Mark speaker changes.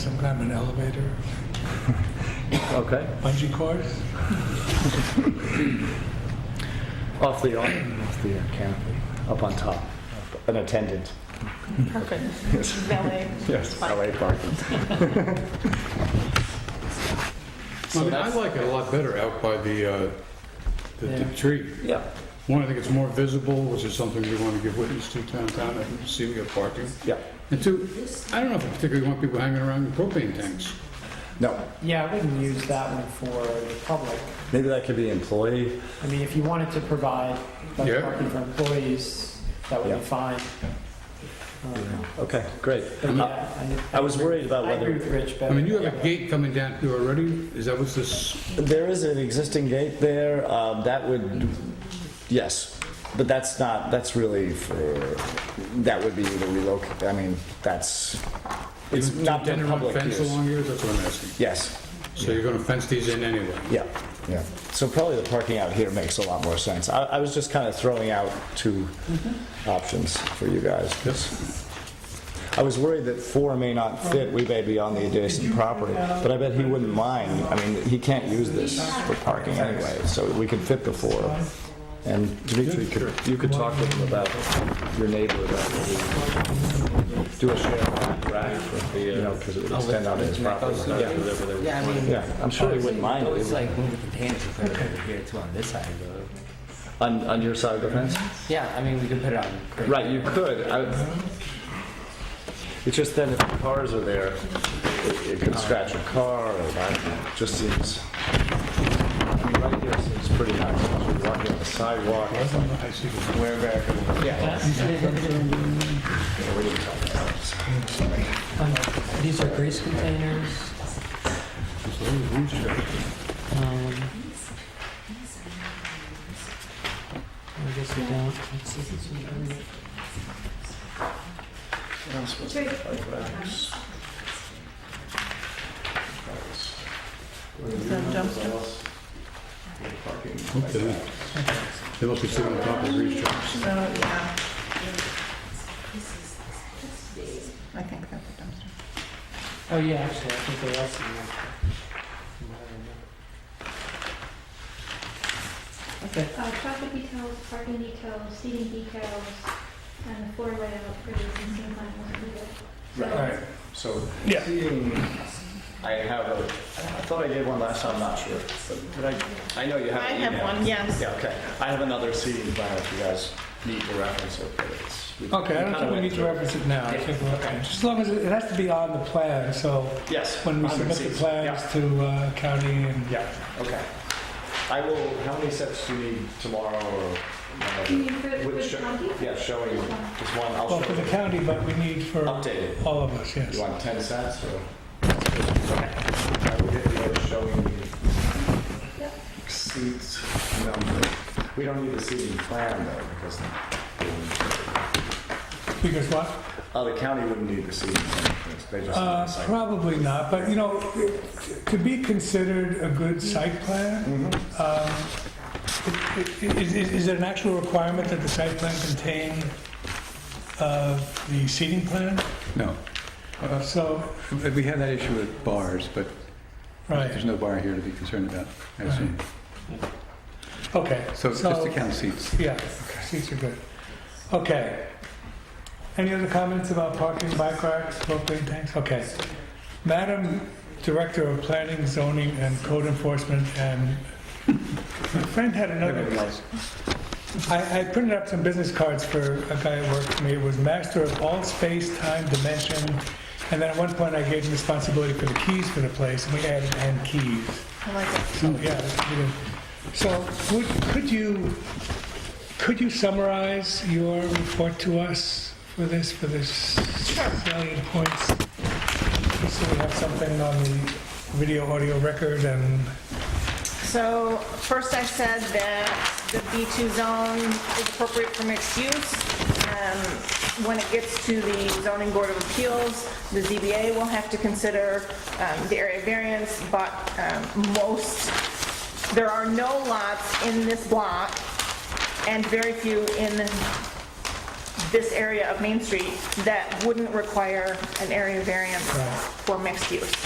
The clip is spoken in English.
Speaker 1: program, an elevator,
Speaker 2: Okay,
Speaker 1: bungee cord.
Speaker 2: off the, off the canopy, up on top, an attendant.
Speaker 3: Perfect. Valet.
Speaker 2: Yes. LA parking.
Speaker 4: I mean, I like it a lot better out by the, uh, the- the tree.
Speaker 2: Yeah,
Speaker 4: One, I think it's more visible, which is something we want to give witness to downtown, and see we got parking.
Speaker 2: yeah.
Speaker 4: And two, I don't know if I particularly want people hanging around in propane tanks.
Speaker 2: No,
Speaker 5: Yeah, I wouldn't use that one for the public.
Speaker 2: maybe that could be employee,
Speaker 5: I mean, if you wanted to provide like
Speaker 4: Yeah.
Speaker 5: parking for employees, that would
Speaker 2: Yeah.
Speaker 5: be fine. Um,
Speaker 2: okay, great. Uh,
Speaker 5: But yeah, I-
Speaker 2: I was worried about
Speaker 5: I agree
Speaker 2: whether,
Speaker 5: with Rich, but.
Speaker 4: I mean, you have a
Speaker 5: yeah.
Speaker 4: gate coming down here already, is that what's this?
Speaker 2: there is an existing gate there, um, that would, yes, but that's not, that's really for, that would be the relocate, I mean, that's, it's
Speaker 4: you
Speaker 2: not for
Speaker 4: intend to run
Speaker 2: public
Speaker 4: Fence
Speaker 2: use.
Speaker 4: along here, that's what I'm asking.
Speaker 2: Yes,
Speaker 4: So you're gonna fence these in anyway?
Speaker 2: Yeah, yeah. So probably the parking out here makes a lot more sense. I, I was just kind of throwing out two options for you guys.
Speaker 4: Yes.
Speaker 2: I was worried that four may not fit, we may be on the adjacent property, but I bet he wouldn't mind. I mean, he can't use this for parking anyway, so we could fit the four. And Dimitri, could- you could talk with him about your neighbor about what he- do a share rack, you know, because it would extend out his property. Yeah,
Speaker 6: Yeah, I mean.
Speaker 2: Yeah, I'm sure he wouldn't mind it.
Speaker 6: It's like moving the pants if they're over here too on this side of the road.
Speaker 2: On, on your side of the fence?
Speaker 6: Yeah, I mean, we could put it on. great.
Speaker 2: Right, you could. I- It's just then if the cars are there, it- it could scratch a car or that, it just seems. I mean, right here seems pretty nice, you're walking on the sidewalk.
Speaker 4: I see.
Speaker 2: Where back?
Speaker 7: Um, These are grease containers. Um, I guess we don't.
Speaker 4: Okay. They must be sitting on top of these jobs.
Speaker 8: So, yeah. I think that's a dumpster.
Speaker 7: Oh, yeah, actually, I think there are some. left. From what I remember.
Speaker 9: Uh, traffic details, parking details, seating details, and the floor layout for the existing plan was needed.
Speaker 2: Right, so seeing, I have a, I thought I gave one last time, I'm not sure. but Did I, I know you
Speaker 8: I
Speaker 2: have an
Speaker 8: have
Speaker 2: email.
Speaker 8: one, yes.
Speaker 2: Yeah, okay. I have another seating plan if you guys need to reference it, but it's. we-
Speaker 1: Okay, I don't
Speaker 2: kinda
Speaker 1: think we
Speaker 2: went
Speaker 1: need to
Speaker 2: through it.
Speaker 1: reference it now. I think we're okay. Just as long as, it it has to be on the plan, so
Speaker 2: Yes.
Speaker 1: when we
Speaker 2: 100
Speaker 1: submit the
Speaker 2: seats.
Speaker 1: plans to uh, county and.
Speaker 2: Yeah, yeah, okay. I will, how many sets do you need tomorrow or?
Speaker 9: Do you need for, for
Speaker 2: With
Speaker 9: the
Speaker 2: show-
Speaker 9: county?
Speaker 2: Yeah, showing, just one, I'll
Speaker 1: Well, for the
Speaker 2: show.
Speaker 1: county, but we need for
Speaker 2: Updated.
Speaker 1: all of us, yes.
Speaker 2: You want 10 sets or? I will get the other showing you
Speaker 9: Yep.
Speaker 2: seats number. We don't need the seating plan though, because
Speaker 1: Because what?
Speaker 2: oh, the county wouldn't need the seating plan. because They just need
Speaker 1: Uh,
Speaker 2: the site.
Speaker 1: Probably not, but you know, it could be considered a good site plan. Um, it- it- Is is- is it an actual requirement that the site plan contain uh, the seating plan?
Speaker 4: No,
Speaker 1: So,
Speaker 4: Uh, we had that issue with bars, but
Speaker 1: right,
Speaker 4: no bar here to be concerned about, I assume.
Speaker 1: okay.
Speaker 4: seats.
Speaker 1: Yeah, seats are good. Okay. Any other comments about parking, bike racks, propane tanks? Okay. Madam Director of Planning, Zoning, and Code Enforcement, and my friend had another. I, I printed up some business cards for a guy who worked for me. It was master of all space, time, dimension. And then at one point, I gave him responsibility for the keys for the place, and we added and keys.
Speaker 8: I like it.
Speaker 1: So, yeah, you know. so would, could you, could you summarize your report to us for this, for this salient points? Just So we have something on the video, audio record and,
Speaker 8: So first I said that the B2 zone is appropriate for mixed use. Um, When it gets to the zoning board of appeals, the ZBA will have to consider um, the area variance, but um, most, there are no lots in this block and very few in this area of Main Street that wouldn't require an area variance for mixed use.